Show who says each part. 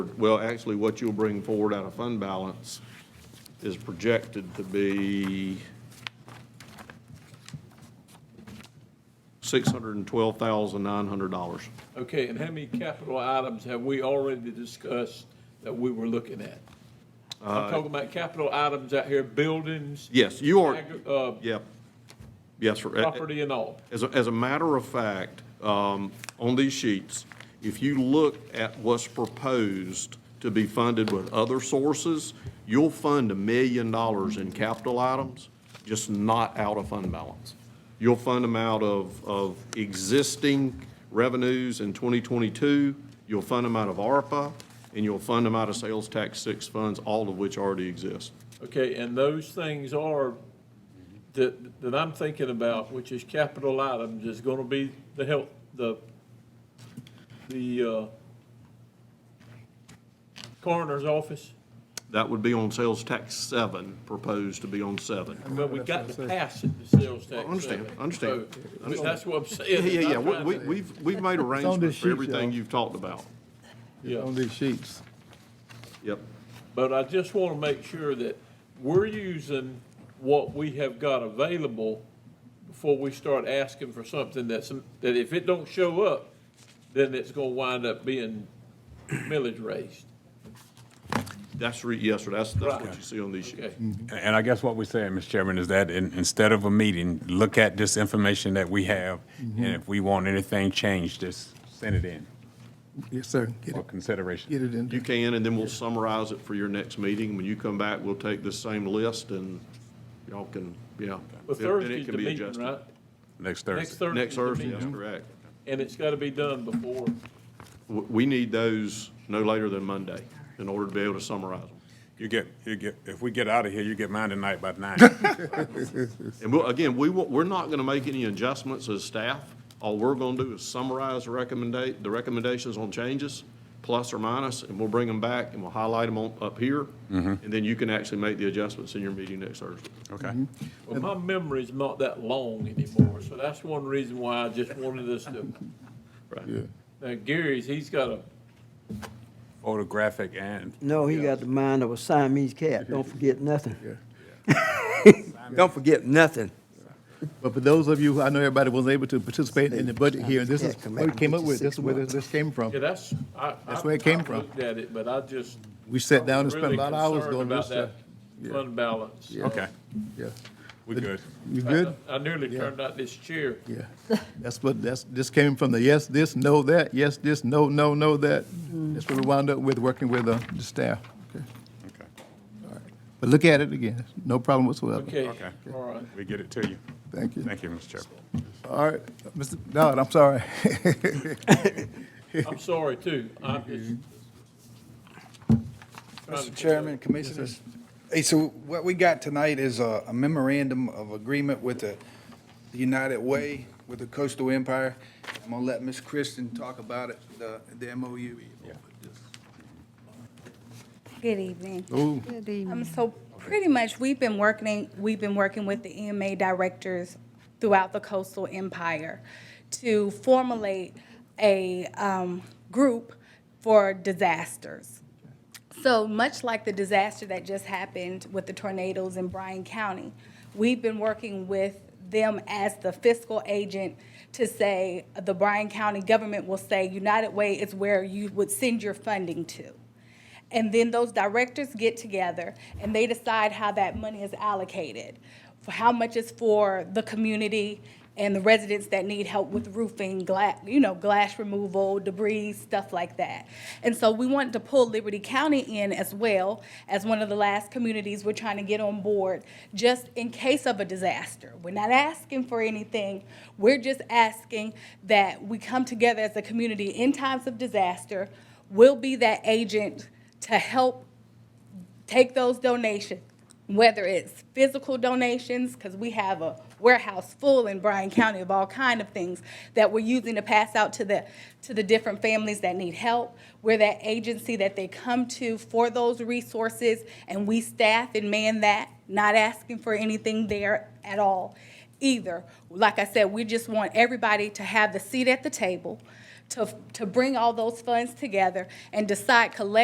Speaker 1: Well, actually, what you'll bring forward out of fund balance is projected to be $612,900.
Speaker 2: Okay, and how many capital items have we already discussed that we were looking at? I'm
Speaker 1: Uh,
Speaker 2: talking about capital items out here, buildings,
Speaker 1: Yes, you are,
Speaker 2: agri- uh,
Speaker 1: yep, yes, sir.
Speaker 2: property and all.
Speaker 1: As, a- as a matter of fact, um, on these sheets, if you look at what's proposed to be funded with other sources, you'll fund a million dollars in capital items, just not out of fund balance. You'll fund them out of, of existing revenues in 2022, you'll fund them out of ARPA, and you'll fund them out of sales tax six funds, all of which already exist.
Speaker 2: Okay, and those things are, that, that I'm thinking about, which is capital items, is gonna be the health, the, the, uh, coroner's office,
Speaker 1: That would be on sales tax seven, proposed to be on seven.
Speaker 2: but we got to pass it, the sales tax.
Speaker 1: I understand,
Speaker 2: levy.
Speaker 1: I understand.
Speaker 2: So,
Speaker 1: I understand.
Speaker 2: That's what I'm
Speaker 1: Yeah,
Speaker 2: saying.
Speaker 1: yeah, yeah,
Speaker 2: I'm
Speaker 1: We-
Speaker 2: trying
Speaker 1: we,
Speaker 2: to-
Speaker 1: we've, we've made arrangements
Speaker 3: this
Speaker 1: for
Speaker 3: sheet,
Speaker 1: everything
Speaker 3: y'all.
Speaker 1: you've talked about.
Speaker 2: Yeah.
Speaker 3: on these sheets.
Speaker 1: Yep.
Speaker 2: But I just want to make sure that we're using what we have got available before we start asking for something that's, that if it don't show up, then it's going to wind up being millage raised.
Speaker 1: That's re, yes, sir, that's, that's what
Speaker 2: Right.
Speaker 1: you see on these sheets.
Speaker 2: Okay,
Speaker 3: Mm.
Speaker 4: And I guess what we're saying, Mr. Chairman, is that in, instead of a meeting, look at this information that we have,
Speaker 3: Mm-hmm.
Speaker 4: and if we want anything changed, just send it in
Speaker 3: Yes, sir. Get
Speaker 4: for
Speaker 3: it,
Speaker 4: consideration.
Speaker 3: get it in.
Speaker 1: You can, and then we'll summarize it for your next meeting. When you come back, we'll take this same list and y'all can, yeah.
Speaker 2: But
Speaker 1: Then- then it
Speaker 2: Thursday's
Speaker 1: can
Speaker 2: the
Speaker 1: be
Speaker 2: meeting,
Speaker 1: adjusted.
Speaker 2: right? Next
Speaker 4: Next Thursday.
Speaker 2: Thursday's
Speaker 1: Next
Speaker 2: the
Speaker 1: Thursday, that's
Speaker 2: meeting,
Speaker 1: correct.
Speaker 2: and it's got to be done before,
Speaker 1: We, we need those no later than Monday in order to be able to summarize them.
Speaker 4: You get, you get, if we get out of here, you get mine tonight by nine.
Speaker 1: And we'll, again, we, won't- we're not gonna make any adjustments as staff. All we're gonna do is summarize the recommendate, the recommendations on changes, plus or minus, and we'll bring them back and we'll highlight them on, up here. And then you can actually make the adjustments in your meeting next Thursday.
Speaker 4: Okay.
Speaker 2: well, my memory's not that long anymore, so that's one reason why I just wanted us to.
Speaker 3: Yeah.
Speaker 2: Now Gary's, he's got a,
Speaker 4: Photographic and
Speaker 5: No, he got the mind of a Siamese cat. Don't forget nothing. Don't forget nothing.
Speaker 3: But for those of you, I know everybody wasn't able to participate in the budget here, and this is
Speaker 5: Yeah, come
Speaker 3: what we
Speaker 5: back
Speaker 3: came
Speaker 5: with
Speaker 3: up
Speaker 5: you
Speaker 3: with, this
Speaker 5: six
Speaker 3: is where this
Speaker 5: months.
Speaker 3: this came from.
Speaker 2: yeah, that's, I.
Speaker 3: That's where it came from.
Speaker 2: I looked at it, but I just.
Speaker 3: We sat down and spent
Speaker 2: really
Speaker 3: a lot of hours
Speaker 2: concerned
Speaker 3: doing
Speaker 2: about
Speaker 3: this stuff.
Speaker 2: that Fund balance. so-
Speaker 4: Okay,
Speaker 3: Yeah,
Speaker 4: we good.
Speaker 3: you
Speaker 2: I-
Speaker 3: good?
Speaker 2: I nearly
Speaker 3: Yeah.
Speaker 2: turned out this chair.
Speaker 3: Yeah, that's what, that's, this came from the yes, this, no, that, yes, this, no, no, no, that.
Speaker 5: Mm-hmm.
Speaker 3: That's what we wound up with, working with uh, the staff. Okay.
Speaker 4: Okay,
Speaker 3: But look at it again, no problem whatsoever.
Speaker 2: Okay,
Speaker 4: Okay.
Speaker 2: all right.
Speaker 4: we get it to you.
Speaker 3: Thank you.
Speaker 4: Thank you, Mr. Chairman.
Speaker 3: All right, Mr. Dodd, I'm sorry.
Speaker 2: I'm sorry too. I'm just. trying to-
Speaker 6: Mr. Chairman, Commissioners. Hey, so what we got tonight is a a memorandum of agreement with the the United Way, with the Coastal Empire. I'm gonna let Ms. Kristen talk about it, the, the MOU.
Speaker 7: Good evening.
Speaker 3: Ooh.
Speaker 7: Good evening. So pretty much, we've been working, we've been working with the EMA directors throughout the coastal empire to formulate a um, group for disasters. So much like the disaster that just happened with the tornadoes in Bryan County, we've been working with them as the fiscal agent to say, the Bryan County government will say, United Way is where you would send your funding to. And then those directors get together and they decide how that money is allocated. For how much is for the community and the residents that need help with roofing, gla, you know, glass removal, debris, stuff like that. And so we want to pull Liberty County in as well as one of the last communities we're trying to get on board, just in case of a disaster. We're not asking for anything. We're just asking that we come together as a community in times of disaster. We'll be that agent to help take those donations, whether it's physical donations, because we have a warehouse full in Bryan County of all kind of things that we're using to pass out to the, to the different families that need help. We're that agency that they come to for those resources, and we staff and man that, not asking for anything there at all either. Like I said, we just want everybody to have the seat at the table, to, to bring all those funds together and decide collectively